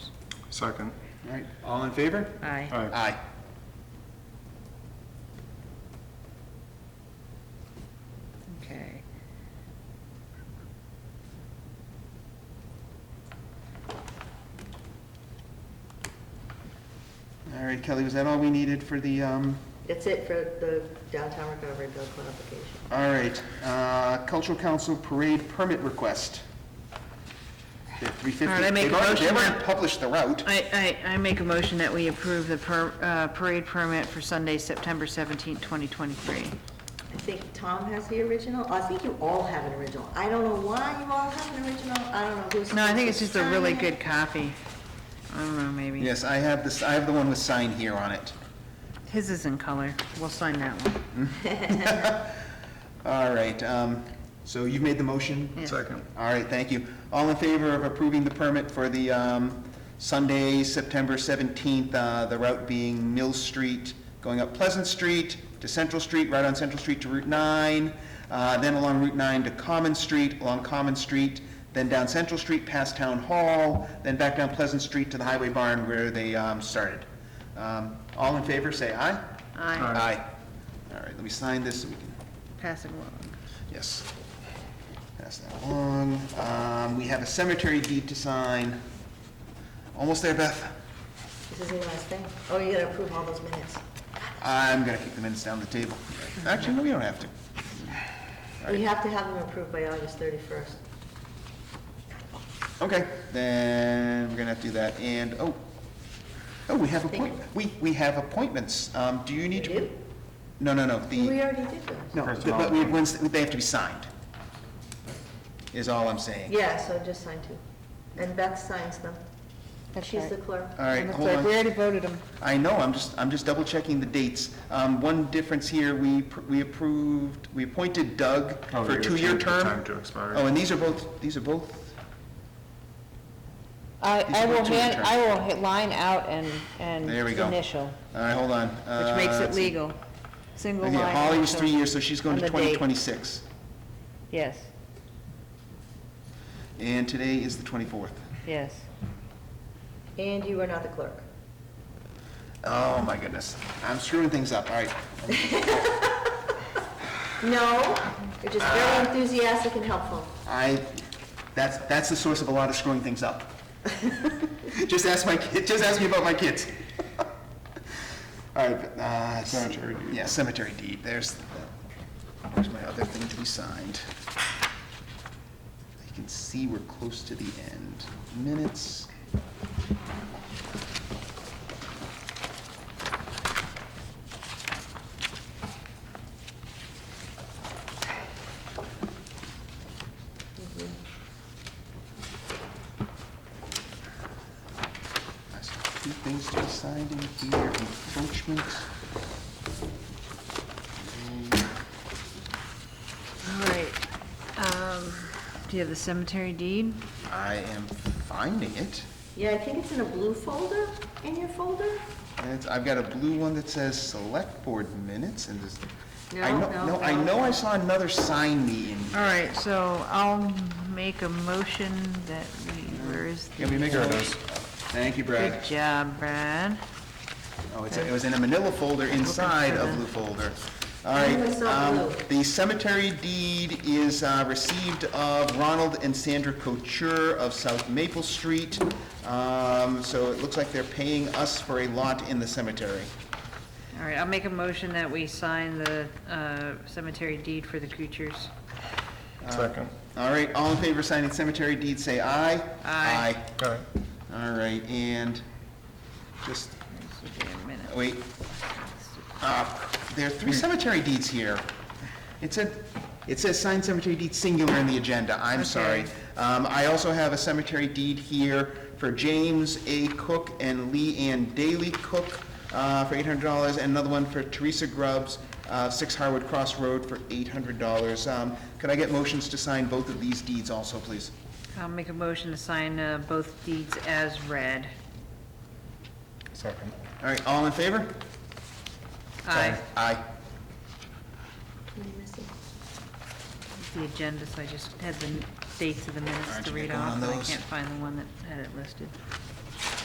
Second. All right, all in favor? Aye. Aye. Aye. Okay. All right, Kelly, was that all we needed for the, um, That's it for the downtown recovery bill qualification. all right, uh, cultural council parade permit request? The All right, 350. I make They've a already- They motion haven't that- published the route. I, I, I make a motion that we approve the per, uh, parade permit for Sunday, September seventeenth, twenty twenty-three. I think Tom has the original, I think you all have an original. I don't know why you all have an original, I don't know who's. No, I think it's just a really signing good it. copy. I don't know, maybe. Yes, I have this, I have the one with sign here on it. His is in color. We'll sign that one. All right, um, so you've made the motion? Yeah. Second. All right, thank you. All in favor of approving the permit for the um, Sunday, September 17th, uh, the route being Mill Street, going up Pleasant Street to Central Street, right on Central Street to Route 9, uh, then along Route 9 to Common Street, along Common Street, then down Central Street past Town Hall, then back down Pleasant Street to the Highway Barn where they um, started. Um, All in favor, say aye. Aye. Aye. All right, let me sign this so we can Pass it along. Yes. Pass that along. Um, we have a cemetery deed to sign. Almost there, Beth. This is the last thing. Oh, you gotta approve all those minutes. I'm gonna kick the minutes down the table. Actually, no, we don't have to. You have to have them approved by August thirty-first. Okay, then we're gonna have to do that, and, oh, oh, we have appoint, we, we have appointments. Um, do you need to? You do? No, no, no, We the, already did those. no, the- but we, once, they have to be signed, is all I'm saying. Yeah, so just sign two. And Beth signs them. And she's the clerk. All right, hold on. already voted them. I know, I'm just, I'm just double checking the dates. Um, one difference here, we, pr- we approved, we appointed Doug Oh, for a you're two-year changing the Time term. to expire. Oh, and these are both, these are both, I, These I are will two hand, returns. I will hit line out and, and There we go. initial, all right, hold on. Uh, Which makes it legal. legal. Single line. Yeah, Holly was initial. three years, so she's going on to the date. twenty twenty-six. yes, And today is the twenty-fourth. yes. And you are not the clerk. Oh, my goodness. I'm screwing things up, all right. No, you're just very enthusiastic and helpful. I, that's, that's the source of a lot of screwing things up. Just ask my, kid. just ask me about my kids. All right, but, uh. Cemetery deed. Yeah, cemetery deed, there's, the- there's my other thing to be signed. You can see we're close to the end. Minutes. I saw Two things to be signed in here, encroachment. All right. Um, do you have the cemetery deed? I am finding it. Yeah, I think it's in a blue folder, in your folder? And it's, I've got a blue one that says Select Board Minutes, and this, I No, know, no, no, I no. know I saw another sign me in. All right, so I'll make a motion that we, where is the? Thank you, Good Brad. job, Brad. Oh, it's, it was in a manila folder inside a blue folder. All I right, only saw um, blue. the cemetery deed is, uh, received of Ronald and Sandra Couture of South Maple Street. Um, so it looks like they're paying us for a lot in the cemetery. All right, I'll make a motion that we sign the uh, cemetery deed for the Kuchers. Second. All right, all in favor of signing cemetery deed, say aye. Aye. Aye. All right. All right, and just, This will be a minute. wait, uh, there are three cemetery deeds here. It said, it says signed cemetery deed singular in the agenda, I'm sorry. Okay. Um, I also have a cemetery deed here for James A. Cook and Lee Ann Daly Cook, uh, for eight hundred dollars, and another one for Teresa Grubbs, uh, Six Harwood Cross Road for eight hundred dollars. Um, could I get motions to sign both of these deeds also, please? I'll make a motion to sign uh, both deeds as read. Second. All right, all in favor? Aye. Aye. What am I missing? The agenda, so I just had the dates of the minutes Aren't to you read gonna go off, on and I those? can't find the one that had it listed.